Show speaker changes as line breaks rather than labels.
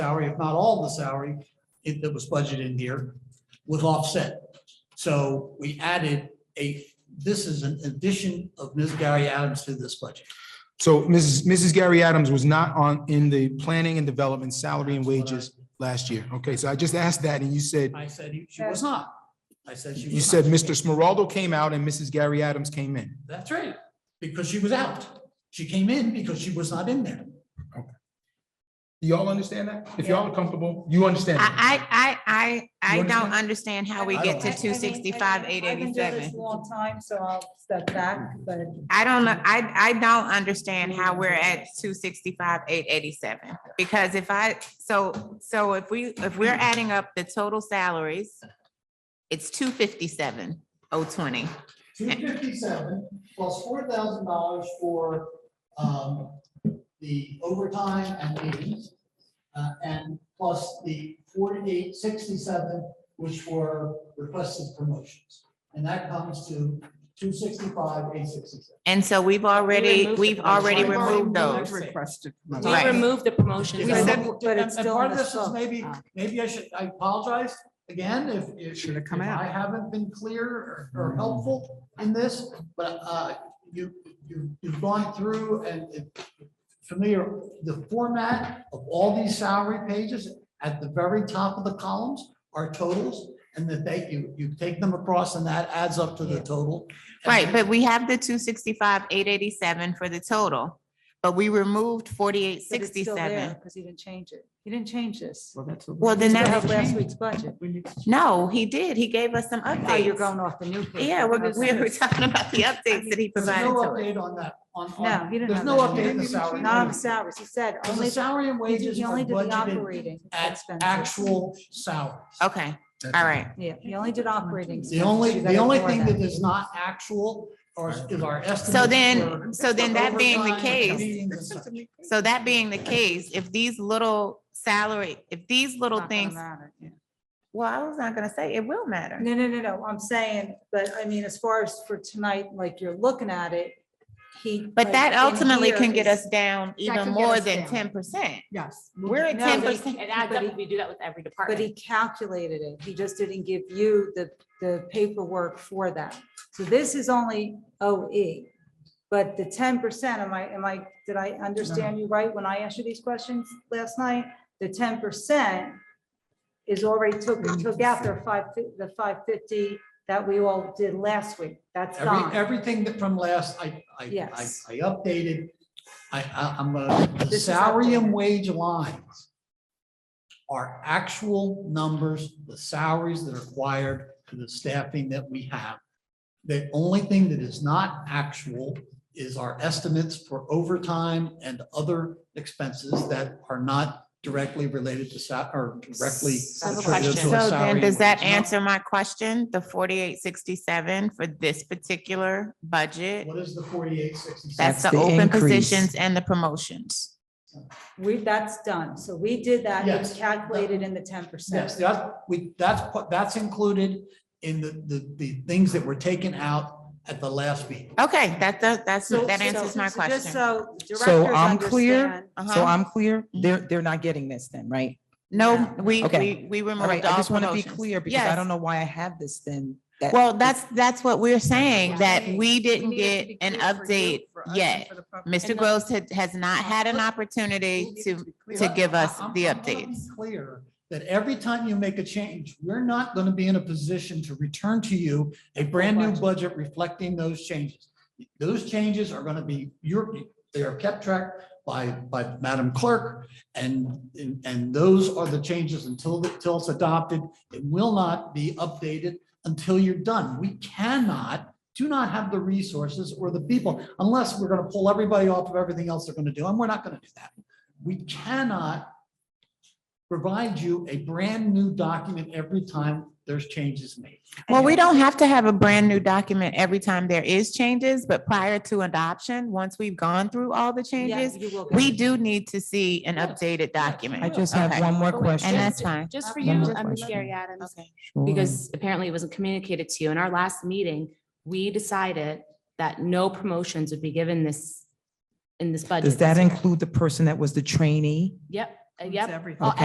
if not all of the salary it- that was budgeted in here, was offset. So we added a, this is an addition of Ms. Gary Adams to this budget.
So Mrs. Mrs. Gary Adams was not on, in the planning and development salary and wages last year. Okay, so I just asked that and you said,
I said you- she was not. I said she was.
you said
not.
Mr. Smeraldo came out and Mrs. Gary Adams came in.
That's right, because she was out. She came in because she was not in there.
Do Y'all understand that? If y'all are comfortable, you understand. that?
I, I, I, I,
You
I don't
understand?
understand how we
I
get to
don't.
two sixty-five, eight
I've been doing this a
eighty-seven.
long time, so I'll step back, but
I don't know, I, I don't understand how we're at two sixty-five, eight eighty-seven. Because if I, so, so if we, if we're adding up the total salaries, it's two fifty-seven, oh twenty.
Two fifty-seven plus four thousand dollars for, um, the overtime and meetings. Uh, and plus the forty-eight sixty-seven, which were requested promotions. And that comes to two sixty-five, eight sixty-seven.
And so we've already,
removed
we've
it.
already
We've already
removed those.
Requested.
We
Right.
removed the promotions.
We
So-
said- but it's
And
still
part
in
of
the Ah.
this is
sub.
maybe, maybe I should, I apologize again if, if.
Should've come
if
out.
I haven't been clear or- or helpful in this, but, uh, you, you, you've gone through and it- familiar, the format of all these salary pages at the very top of the columns are totals. And that they, you, you take them across and that adds up to the total.
Right, but we have the two sixty-five, eight eighty-seven for the total, but we removed forty-eight, sixty-seven.
Because he didn't change it. He didn't change this.
Well, that's what we-
Well, then
We still have
that,
last week's budget.
we need to change.
no, he did. He gave us some
Oh, you're
updates.
going off the new. paper.
Yeah, we're,
Okay.
we're talking about the updates that he
There's
provided
no
to us.
update on that, on. on-
No, he didn't.
There's
have
no
that.
update in the salary.
Not on the salaries. He said
Because
only,
the salary and
he did-
wages
he
are
only did the
budgeted
operating
at
expenses.
actual salaries.
Okay, all right.
Yeah, he only did operating.
The only,
expenses. You
the only
gotta
thing
ignore
that is not actual or is our estimate.
So then, so then that being the case,
case.
so that being the case, if these little salary, if these
It's
little
not gonna
things,
matter, yeah.
well, I was not gonna say, it will matter.
No, no, no, no, I'm saying, but I mean, as far as for tonight, like you're looking at it, he.
But
like,
that
in
ultimately
here
can get
is-
us down even
could get
more
us
than
down.
ten percent.
Yes.
We're at
No,
ten
but-
percent.
It adds up if you do that with every
But he
department.
calculated it. He just didn't give you the, the paperwork for that. So this is only OE. But the ten percent, am I, am I, did I understand you right when I asked you these questions last night? The ten percent is already took, took out their five, fif- the five fifty that we all did last week. That's
Every,
gone.
everything that from last, I, I, I,
Yes.
I updated. I, I, I'm gonna, the
This is
salary and
updated.
wage lines are actual numbers, the salaries that are required for the staffing that we have. The only thing that is not actual is our estimates for overtime and other expenses that are not directly related to sa, or directly.
I have a
attributed to
question.
a salary
So then,
and
does that
wage number.
answer my question? The forty-eight sixty-seven for this particular budget?
What is the forty-eight sixty-seven?
That's
That's
the
the
open
increase.
positions and the promotions.
We, that's done. So we did that. It was
Yes.
calculated in the ten percent.
Yes, that, we, that's, what- that's included in the, the, the things that were taken out at the last meeting.
Okay, that, that, that's,
So-
that answers
so-
my
so just
question.
So
So
directors
I'm clear?
understand.
uh,
So
Uh-huh.
I'm clear, they're, they're not getting this then, right?
No, we, we,
Okay.
we
All right,
removed
I
all
just want to be
promotions.
clear because I
Mm, Yes.
don't know why I have this then. that-
Well, that's, that's what we're saying, that
Right.
we didn't
need it to
get
be
an
clear for you,
update
for us,
yet.
for the public.
Mr.
And Uh,
Gross had, has not had an opportunity to, to give us
I'm-
the
I'm gonna be
updates.
Clear that every time you make a change, we're not gonna be in a position to return to you a brand new budget reflecting those changes. Those changes are gonna be, your they are kept track by, by Madam Clerk. And, and- and those are the changes until, until it's adopted. It will not be updated until you're done. We cannot, do not have the resources or the people, unless we're gonna pull everybody off of everything else they're gonna do, and we're not gonna do that. We cannot provide you a brand new document every time there's changes made.
Well, we don't have to have a brand new document every time there is changes, but prior to adoption, once we've gone through all the
Yeah,
changes,
you will get
we
it.
do need to see an
Yes,
updated
I
document.
just have
Okay.
one more
But wait,
And
question.
that's fine.
Just for
One
you,
more
I'm
question.
Sherry Adams,
Sure.
because apparently it wasn't communicated to you. In our last meeting, we decided that no promotions would be given this, in this budget.
Does that
this year.
include the person that was the trainee?
Yep, uh, yep.
Okay.